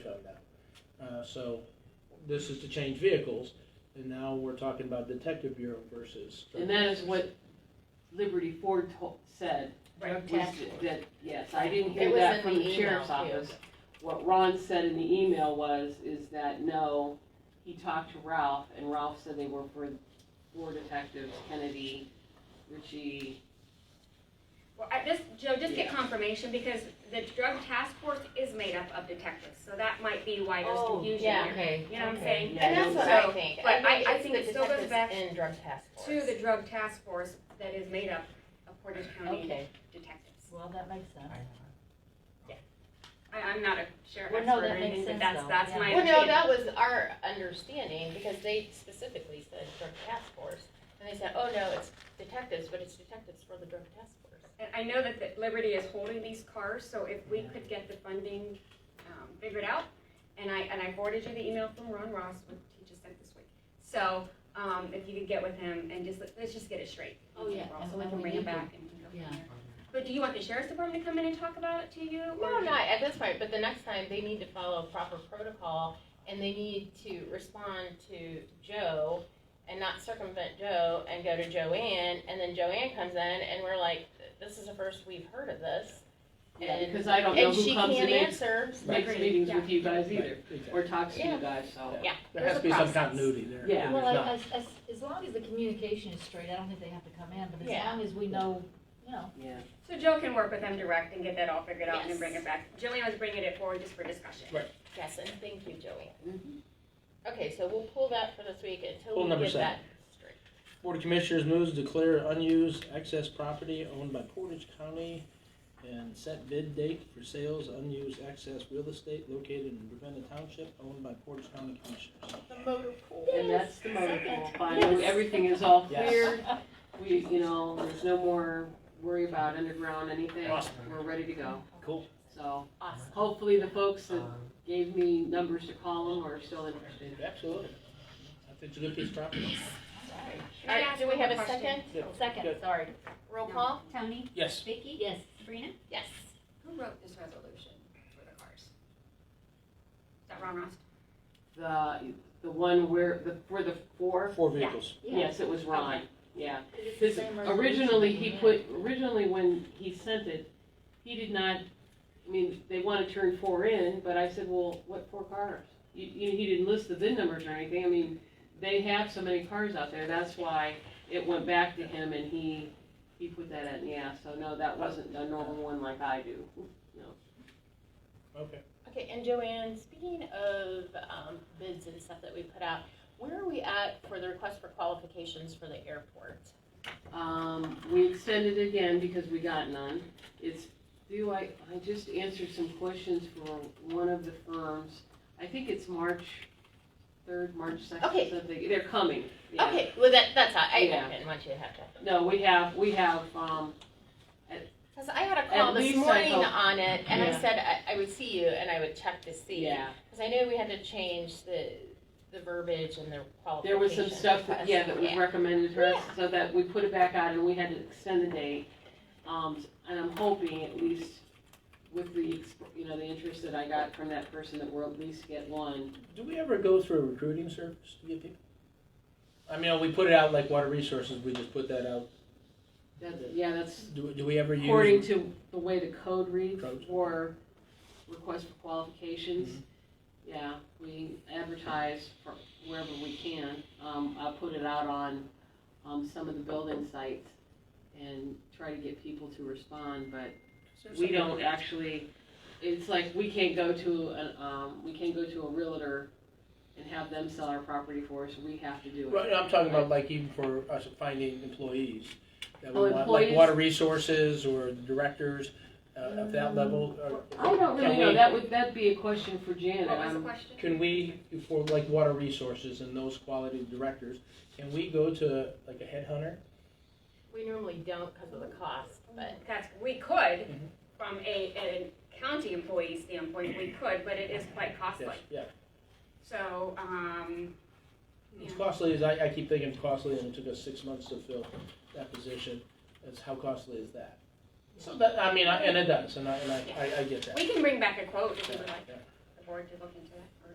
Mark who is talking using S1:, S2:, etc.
S1: Uh, so this is to change vehicles, and now we're talking about detective bureau versus.
S2: And that is what Liberty Ford to- said.
S3: Right.
S2: was
S3: Task
S2: that-
S3: force.
S2: That, yes, I didn't
S3: It
S2: hear
S3: was
S2: that
S3: in
S2: from
S3: the
S2: the sheriff's
S3: email, too.
S2: office. What Ron said in the email was, is that no, he talked to Ralph, and Ralph said they were for four detectives, Kennedy, Ritchie.
S4: Well, I just, Joe, just get
S2: Yeah.
S4: confirmation, because the drug task force is made up of detectives, so that might be why there's
S2: Oh,
S4: confusion
S3: Yeah,
S4: here.
S3: okay.
S4: You know what I'm
S2: Okay.
S4: saying?
S2: Yeah,
S3: And that's
S2: no,
S3: what
S4: so-
S3: I think.
S4: but I- I
S3: it's
S4: think
S3: the
S4: it still goes
S3: detectives
S4: back
S3: In drug task force.
S4: To the drug task force that is made up of Portage County
S3: Okay,
S4: detectives.
S3: well, that makes sense.
S4: I, I'm not a sheriff
S5: Well,
S4: expert
S5: no,
S4: or
S5: that makes
S4: anything, but
S5: sense,
S4: that's,
S5: though,
S4: that's
S5: yeah.
S4: my
S3: Well, no,
S4: opinion.
S3: that was our understanding, because they specifically said drug task force, and they said, oh, no, it's detectives, but it's detectives for the drug task force.
S4: And I know that the- Liberty is holding these cars, so if we could get the funding, um, figured out, and I, and I forwarded you the email from Ron Ross, which he just sent this week. So, um, if you could get with him and just, let- let's just get it straight.
S5: Oh, yeah,
S4: So
S5: and
S4: we
S5: when
S4: can
S5: we
S4: bring it
S5: need to-
S4: back and we can go from
S5: yeah.
S4: there. But do you want the sheriff's department to come in and talk about it to you?
S3: No,
S4: or-
S3: not at this point, but the next time, they need to follow proper protocol, and they need to respond to Joe, and not circumvent Joe, and go to Joanne, and then Joanne comes in, and we're like, this is the first we've heard of this.
S2: Yeah,
S3: And-
S2: because I don't know
S3: And
S2: who
S3: she
S2: comes and
S3: can't
S2: makes,
S3: answer,
S2: makes
S4: Agreed,
S2: meetings
S4: yeah.
S2: with you guys either,
S1: Right, exactly.
S2: or talks to you
S3: Yeah.
S2: guys, so.
S3: yeah.
S1: There has
S3: there's a
S1: to be some
S3: process.
S1: continuity there.
S2: Yeah.
S1: and
S5: Well,
S1: there's not.
S5: as, as, as long as the communication is straight, I don't think they have to come in, but as
S3: Yeah.
S5: long as we know, you know,
S2: Yeah.
S4: So Joe can work with them direct and get that all figured out and then
S3: Yes.
S4: bring it back. Jillian was bringing it forward just for discussion.
S1: Right.
S3: Yes, and thank you, Joanne.
S2: Mhm.
S3: Okay, so we'll pull that for this week until
S1: Pull
S3: we
S1: number
S3: get that
S1: seven.
S3: straight.
S1: Board of Commissioners moves to clear unused excess property owned by Portage County and set bid date for sales of unused excess real estate located in Ravenna Township owned by Portage County Commissioners.
S3: The motor pool.
S2: And that's the motor
S5: Second.
S2: pool, finally, everything is all
S1: Yes.
S2: cleared, we, you know, there's no more worry about underground, anything,
S1: Awesome.
S2: we're ready to go,
S1: Cool.
S2: so.
S3: Awesome.
S2: Hopefully the folks that gave me numbers to call them are still interested.
S1: Absolutely. I think it's a good piece of property.
S4: Can
S3: All
S4: I
S3: right,
S4: ask
S3: do we
S4: one
S3: have
S4: more
S3: a
S4: question?
S3: second?
S1: Yeah.
S3: Second,
S1: Good.
S3: sorry. Roll call?
S5: Tony,
S1: Yes.
S4: Vicky?
S5: yes.
S4: Sabrina?
S3: Yes.
S4: Who wrote this resolution for the cars? Is that Ron Ross?
S2: The, the one where, the, for the four,
S1: Four vehicles.
S2: yes, it was Ron, yeah.
S3: It's the
S2: Because
S3: same
S2: originally,
S3: resolution.
S2: he put, originally when he sent it, he did not, I mean, they wanna turn four in, but I said, well, what four cars? You, you, he didn't list the VIN numbers or anything, I mean, they have so many cars out there, that's why it went back to him and he, he put that in, yeah, so no, that wasn't a normal one like I do.
S1: Okay.
S3: Okay, and Joanne, speaking of um, bids and stuff that we put out, where are we at for the request for qualifications for the airport?
S2: Um, we extended it again because we got none. It's, do I, I just answered some questions for one of the firms. I think it's March third, March second,
S3: Okay.
S2: something, they're coming. yeah.
S3: Okay, well, that, that's, all. I
S2: Yeah.
S3: I didn't want you to have to.
S2: No, we have, we have, um,
S3: Because I had a call
S2: At
S3: this
S2: least I
S3: morning
S2: hope-
S3: on it, and I
S2: Yeah.
S3: said I, I would see you, and I would check to see.
S2: yeah,
S3: Because I knew we had to change the, the verbiage and the
S2: there
S3: qualification.
S2: was some stuff, that- yeah, that was
S3: request.
S2: recommended to us,
S3: Yeah.
S2: so that we put it back out and we had to extend the date. Um, and I'm hoping at least with the, exp- you know, the interest that I got from that person that we'll at least get one.
S1: Do we ever go through a recruiting service to get people? I mean, we put it out like water resources, we just put that out.
S2: That's, yeah, that's
S1: Do, do we ever use?
S2: according to the way the code reads
S1: Code.
S2: or request for qualifications.
S1: Mhm.
S2: Yeah, we advertise for wherever we can. Um, I put it out on, um, some of the building sites and try to get people to respond, but we don't actually, it's like, we can't go to an, um, we can't go to a realtor and have them sell our property for us. We have to do it.
S1: Right, I'm talking about like even for us finding employees, that we
S2: Oh,
S1: want, like
S2: employees?
S1: water resources or directors, uh, at that level, or.
S2: Mm. I don't really
S1: Can
S2: know.
S1: we-
S2: That would, that'd be a question for Janet.
S4: What was the
S2: I'm-
S4: question?
S1: Um, Can we, for like water resources and those quality directors, can we go to like a headhunter?
S3: We normally don't because of the cost, but
S4: That's, we could,
S1: Mhm.
S4: from a, a county employee standpoint, we could, but it is quite costly.
S1: Yes, yeah.
S4: So, um,
S1: It's
S4: Yeah.
S1: costly, as I, I keep thinking it's costly and it took us six months to fill that position, is how costly is that? So that, I mean, I- and it does, and I, and I, I, I get that.
S4: we can bring back a quote if you would like
S1: Yeah.
S4: the board to look into that. or-